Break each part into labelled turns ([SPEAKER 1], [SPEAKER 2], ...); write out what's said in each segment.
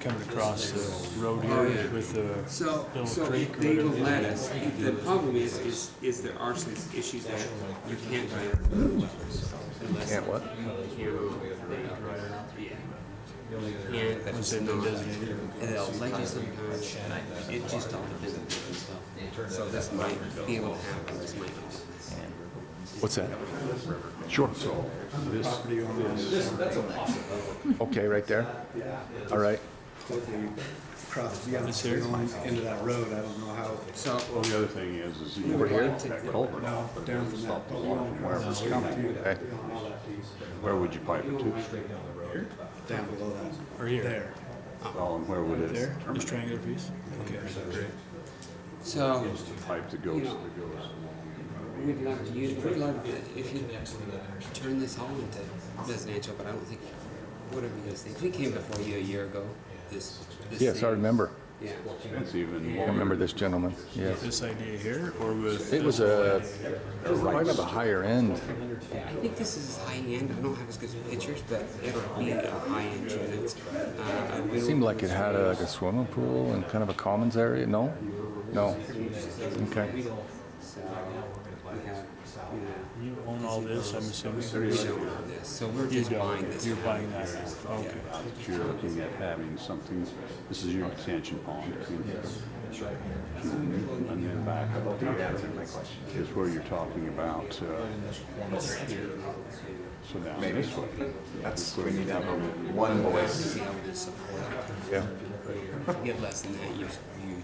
[SPEAKER 1] coming across the road here with the
[SPEAKER 2] So,
[SPEAKER 1] Little
[SPEAKER 2] so
[SPEAKER 1] creek
[SPEAKER 2] if
[SPEAKER 1] or
[SPEAKER 2] they would
[SPEAKER 1] whatever.
[SPEAKER 2] let us, the problem is, is, is there are some issues that you can't hire.
[SPEAKER 3] Can't what?
[SPEAKER 2] Yeah. And
[SPEAKER 1] once they've been designated.
[SPEAKER 2] and it'll let you sometimes, it just all depends on yourself. So this might be able to happen, this might not.
[SPEAKER 3] What's that? Sure.
[SPEAKER 1] Property on this.
[SPEAKER 3] Okay, right there? All right.
[SPEAKER 4] But they cross the other
[SPEAKER 1] This here?
[SPEAKER 4] into that road, I don't know how,
[SPEAKER 2] So,
[SPEAKER 5] Well, the other thing is, is you
[SPEAKER 3] Over here?
[SPEAKER 2] want to-
[SPEAKER 4] no, down from that, but you don't cross the
[SPEAKER 3] Okay.
[SPEAKER 5] where would you pipe it to?
[SPEAKER 4] down below that.
[SPEAKER 1] Or here.
[SPEAKER 4] There.
[SPEAKER 5] Well, and where would it
[SPEAKER 1] There,
[SPEAKER 5] determine
[SPEAKER 1] this triangular piece? Okay.
[SPEAKER 2] so,
[SPEAKER 5] the pipe that goes, that goes?
[SPEAKER 2] we'd love to use, we'd love to, if you turn this all into residential, but I don't think, whatever you guys think, we came before you a year ago, this, this.
[SPEAKER 3] Yes, I
[SPEAKER 2] thing.
[SPEAKER 3] remember.
[SPEAKER 2] Yeah,
[SPEAKER 5] It's even
[SPEAKER 3] I
[SPEAKER 5] longer.
[SPEAKER 3] remember this gentleman. Yes.
[SPEAKER 1] This idea here or with?
[SPEAKER 3] It was a, quite of a higher end.
[SPEAKER 2] I think this is high end, I don't have as good pictures, but it'll be a high end unit. Uh,
[SPEAKER 3] It seemed like it had a, like a swimming pool and kind of a commons area. No? No. Okay.
[SPEAKER 2] So, we have, you know,
[SPEAKER 1] You own all this, I'm assuming?
[SPEAKER 2] We don't own this, so we're
[SPEAKER 1] You
[SPEAKER 2] just buying
[SPEAKER 1] don't,
[SPEAKER 2] this.
[SPEAKER 1] you're
[SPEAKER 2] house.
[SPEAKER 1] buying that, okay.
[SPEAKER 5] But you're looking at having something, this is your detention pond. between here And then back up here is where you're talking about, uh, so down this way.
[SPEAKER 6] That's, we need to have one voice.
[SPEAKER 2] See how we support it.
[SPEAKER 3] Yeah.
[SPEAKER 2] If you Get less than that, you, you.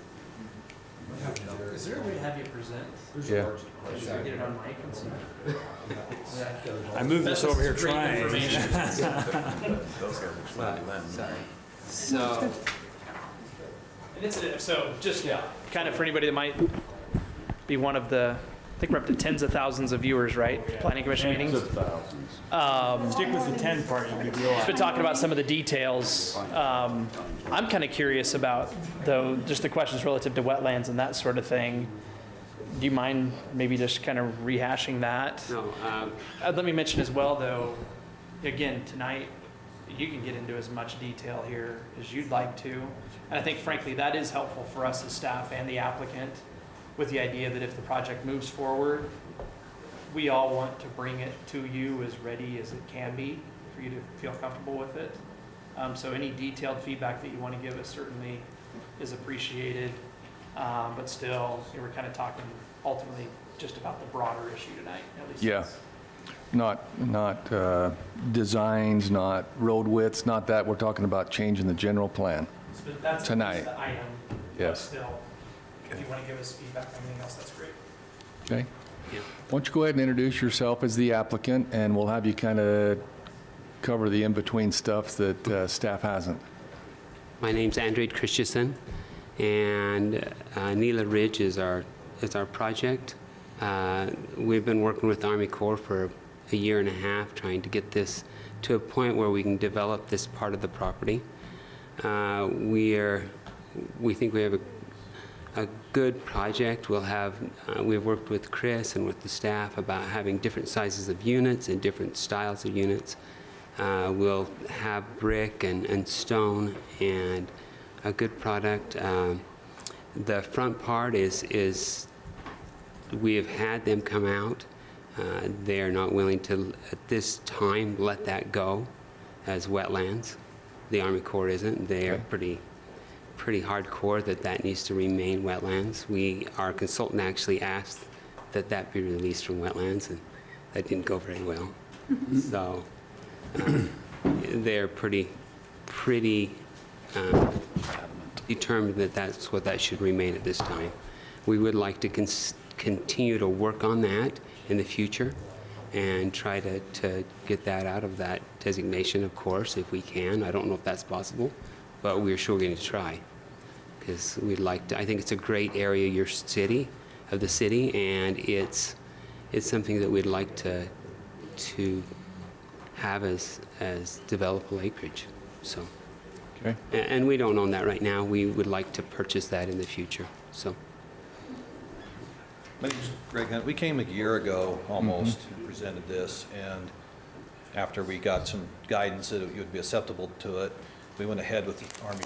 [SPEAKER 7] Is there a way to have you present?
[SPEAKER 3] Yeah.
[SPEAKER 7] Just get it on mic and see.
[SPEAKER 1] I moved this over here trying.
[SPEAKER 2] Sorry. So,
[SPEAKER 7] And it's, so just kind of for anybody that might be one of the, I think we're up to tens of thousands of viewers, right? Planning commission
[SPEAKER 1] Tens
[SPEAKER 7] meetings.
[SPEAKER 5] Thousands.
[SPEAKER 1] Stick with the ten part, you'll be real.
[SPEAKER 7] Been talking about some of the details. Um, I'm kind of curious about though, just the questions relative to wetlands and that sort of thing. Do you mind maybe just kind of rehashing that?
[SPEAKER 2] no, um,
[SPEAKER 7] Uh, Let me mention as well, though, again, tonight, you can get into as much detail here as you'd like to. And I think frankly, that is helpful for us as staff and the applicant with the idea that if the project moves forward, we all want to bring it to you as ready as it can be for you to feel comfortable with it. Um, so any detailed feedback that you want to give us certainly is appreciated. Um, but still, you know, we're kind of talking ultimately just about the broader issue tonight, at least.
[SPEAKER 3] Yeah.
[SPEAKER 7] that's-
[SPEAKER 3] Not, not uh, designs, not road widths, not that. We're talking about changing the general plan.
[SPEAKER 7] But that's at
[SPEAKER 3] Tonight.
[SPEAKER 7] least the item. But
[SPEAKER 3] Yes.
[SPEAKER 7] Still, if you want to give us feedback on anything else, that's great.
[SPEAKER 3] Okay? Why don't you go ahead and introduce yourself as the applicant, and we'll have you kind of cover the in-between stuff that uh, staff hasn't.
[SPEAKER 2] my name's Andrej Christensen, and uh, Nila Ridge is our, is our project. Uh, We've been working with Army Corps for a year and a half, trying to get this to a point where we can develop this part of the property. Uh, We are, we think we have a, a good project. We'll have, uh, we've worked with Chris and with the staff about having different sizes of units and different styles of units. Uh, We'll have brick and, and stone and a good product. Um, The front part is, is, we have had them come out. Uh, They are not willing to, at this time, let that go as wetlands. The Army Corps isn't. They are
[SPEAKER 3] Okay.
[SPEAKER 2] pretty, pretty hardcore that that needs to remain wetlands. We, our consultant actually asked that that be released from wetlands, and that didn't go very well. So um, they're pretty, pretty um, determined that that's what that should remain at this time. We would like to cons- continue to work on that in the future and try to, to get that out of that designation, of course, if we can. I don't know if that's possible, but we're sure going to try. Because we'd like to, I think it's a great area, your city, of the city, and it's, it's something that we'd like to, to have as, as developable acreage, so.
[SPEAKER 3] Okay?
[SPEAKER 2] a- And we don't own that right now. We would like to purchase that in the future, so.
[SPEAKER 8] My name's Greg Hunt. We came a year ago, almost, and presented this, and after we got some guidance that it would be acceptable to it, we went ahead with the Army